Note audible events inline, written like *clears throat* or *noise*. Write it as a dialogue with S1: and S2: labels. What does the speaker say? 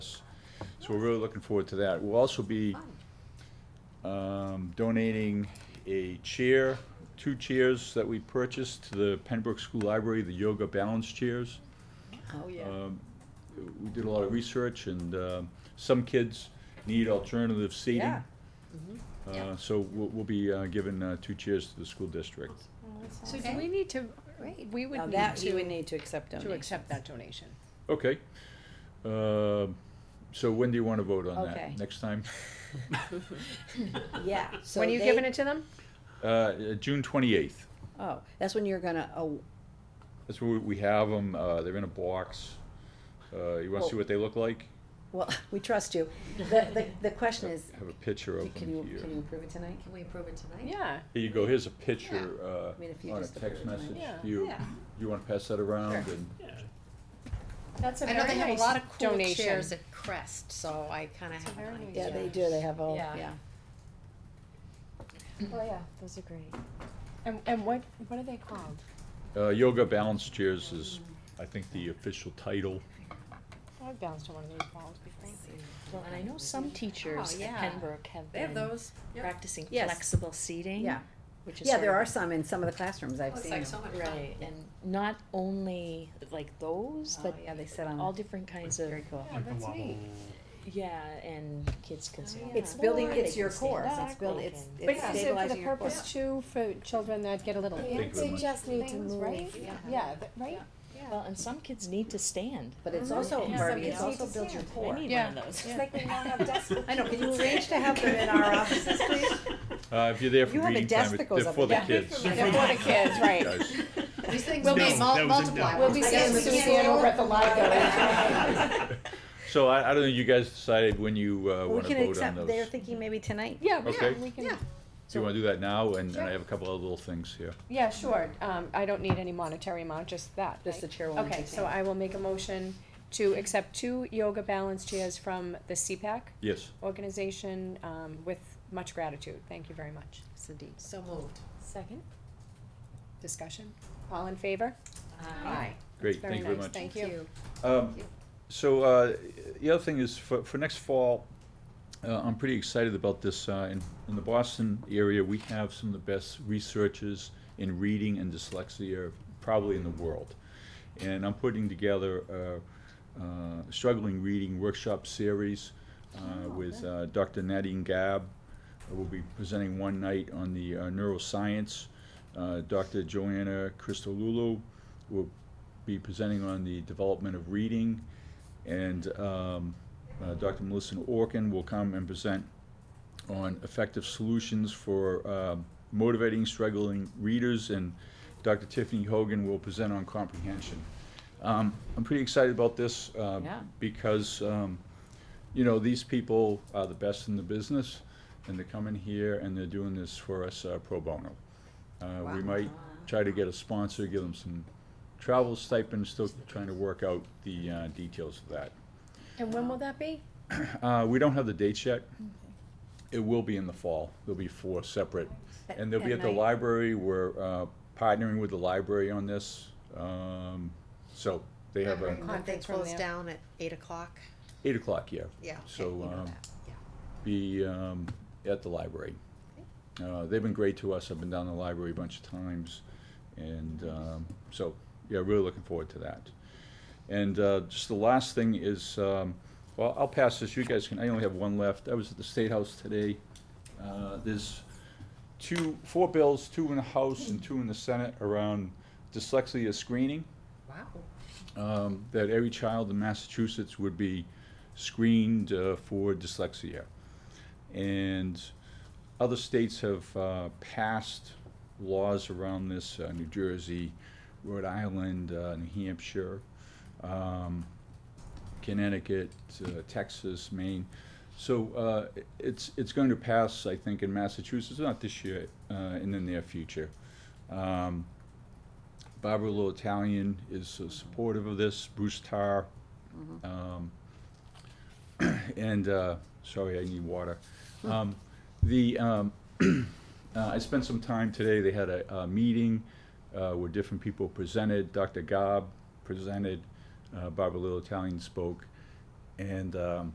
S1: So we're really looking forward to that. We'll also be um, donating a chair, two chairs that we purchased to the Pembroke School Library, the yoga balance chairs.
S2: Oh, yeah.
S1: Um, We did a lot of research and um, some kids need alternative seating.
S2: Yeah. Mm-hmm.
S1: Uh, So we'll, we'll be uh, giving uh, two chairs to the school district.
S3: So do we need to, we would
S2: Now
S3: need
S2: that you would
S3: to,
S2: need to accept
S3: to
S2: donations.
S3: accept that donation.
S1: Okay. Uh, So when do you want to vote on
S2: Okay.
S1: that? Next time? *laughs*
S2: Yeah, so
S3: When are you
S2: they-
S3: giving it to them?
S1: Uh, uh, June twenty-eighth.
S2: Oh, that's when you're gonna, oh,
S1: That's where we have them. Uh, they're in a box. Uh, you want to see
S2: Well-
S1: what they look like?
S2: well, *laughs* we trust you. The, the, the question
S1: I
S2: is,
S1: have a picture of
S2: can you,
S1: them here.
S2: can you approve it tonight?
S4: Can we approve it tonight?
S3: Yeah,
S1: Here you go. Here's a picture
S2: I mean, if
S1: uh,
S2: you
S1: on a
S2: just
S1: text
S2: approve it
S1: message.
S3: tonight.
S1: Do you,
S4: Yeah.
S1: you want to pass that around? And
S3: that's a
S4: I know
S3: very
S4: they have a
S3: nice
S4: lot of cool
S3: donation.
S4: chairs at Crest, so I kinda have
S3: very
S4: an
S3: nice
S2: Yeah,
S4: idea.
S2: they do, they have all,
S4: Yeah.
S2: yeah.
S5: Oh yeah, those are great.
S3: And, and what, what are they called?
S1: uh, yoga balance chairs is, I think, the official title.
S3: I've bounced on one of these balls before.
S6: And I know some teachers
S4: Oh,
S6: at
S4: yeah.
S6: Pembroke have
S4: They have
S6: been
S4: those.
S6: practicing
S2: Yes.
S6: flexible seating.
S2: Yeah,
S6: Which is
S2: yeah, there
S6: sort
S2: are
S6: of-
S2: some in some of the classrooms, I've
S4: It's
S2: seen
S4: like
S2: them.
S4: so much fun.
S6: Right, and not only like those,
S2: Oh,
S6: but
S2: yeah, they sit on,
S6: all
S2: a-
S6: different kinds of,
S2: very cool.
S3: Yeah, that's neat.
S6: yeah, and kids can sit on the
S2: Oh, It's building,
S6: floor,
S2: it's
S6: they
S2: your
S6: can stand
S2: core,
S6: up,
S2: it's building,
S6: they
S2: it's
S6: can-
S2: it's
S3: But is it for the
S2: stabilizing your core.
S3: purpose too, for children that get a little
S1: Thank you very
S5: They
S1: much.
S5: just need to
S3: things,
S5: move.
S3: right?
S4: Yeah.
S3: Yeah, th- right?
S6: Well, and some kids need to stand.
S2: But it's
S5: Mhm.
S2: also,
S6: Yeah.
S2: Barbie, it's
S4: Somebody
S2: also builds your
S6: I
S2: core.
S6: need
S3: Yeah.
S6: one of those.
S5: It's like when you
S6: *laughs*
S5: don't have desks.
S2: I know, can you arrange to have them
S5: *laughs*
S2: in our offices, *laughs* please?
S1: Uh, if you're there
S2: You
S1: for
S2: have a
S1: reading
S2: desk
S1: time,
S2: that
S1: it-
S2: goes
S1: they're
S2: up
S1: for the
S2: there. *laughs*
S1: kids.
S3: For the kids, right.
S1: Guys.
S4: These things
S3: We'll
S4: will
S3: be
S4: be
S3: No,
S7: mul- that was a multiplied.
S4: multiplied.
S7: no.
S3: We'll be seeing
S2: guess-
S3: Suzanne over at the library.
S4: *laughs*
S1: So I, I don't know, you guys decided when you, uh,
S2: We
S1: wanna
S2: can
S1: vote on
S2: accept,
S1: those.
S2: they're thinking maybe tonight.
S3: Yeah, yeah,
S1: Okay.
S3: we can,
S4: Yeah.
S1: Do you wanna do that now? And, and
S3: Sure.
S1: I have a couple other little things here.
S3: yeah, sure. Um, I don't need any monetary amount, just that,
S2: Just
S3: right?
S2: the chair will
S3: Okay, so I will make a motion to accept two yoga balance chairs from the CPAC
S1: Yes.
S3: organization, um, with much gratitude. Thank you very much.
S2: Cindy.
S4: So moved.
S5: Second.
S3: Discussion? All in favor?
S6: Uh,
S4: Aye.
S1: Great,
S3: Very
S1: thank you very
S3: nice,
S1: much.
S3: Thank you.
S1: Um, so, uh, the other thing is for, for next fall, uh, I'm pretty excited about this. Uh, in, in the Boston area, we have some of the best researchers in reading and dyslexia probably in the world. And I'm putting together a, uh, struggling reading workshop series uh, with uh, Dr. Nadine Gabb. We'll be presenting one night on the uh, neuroscience. Uh, Dr. Joanna Christodoulou will be presenting on the development of reading, and um, uh, Dr. Melissa Orkin will come and present on effective solutions for um, motivating struggling readers, and Dr. Tiffany Hogan will present on comprehension. Um, I'm pretty excited about this uh,
S2: Yeah.
S1: because, um, you know, these people are the best in the business, and they're coming here and they're doing this for us uh, pro bono. Uh, We might try to get a sponsor, give them some travel stipend, still trying to work out the uh, details of that.
S3: And when will that be?
S1: Uh, we don't have the dates yet. It will be in the fall. There'll be four separate. And they'll be
S2: At-
S1: at
S2: at
S1: the
S2: night.
S1: library. We're uh, partnering with the library on this. Um, So they have a,
S4: Remember when they
S3: Conference room
S4: close
S3: there.
S4: down at eight o'clock?
S1: eight o'clock, yeah.
S4: Yeah.
S1: So,
S4: okay, you know
S1: um,
S4: that. Yeah.
S1: be um, at the library. Uh, They've been great to us. I've been down the library a bunch of times. And um, so, yeah, really looking forward to that. And uh, just the last thing is, um, well, I'll pass this. You guys can, I only have one left. I was at the State House today. Uh, There's two, four bills, two in the House and two in the Senate around dyslexia screening
S4: Wow.
S1: um, that every child in Massachusetts would be screened uh, for dyslexia. And other states have uh, passed laws around this, uh, New Jersey, Rhode Island, uh, New Hampshire, um, Connecticut, uh, Texas, Maine. So uh, i- it's, it's going to pass, I think, in Massachusetts, not this year, uh, in the near future. Um, Barbara Little Italian is uh, supportive of this, Bruce Tarr. um, *clears throat* And, uh, sorry, I need water. Um, The, um, *clears throat* uh, I spent some time today, they had a, a meeting uh, where different people presented. Dr. Gobb presented, uh, Barbara Little Italian spoke. And um,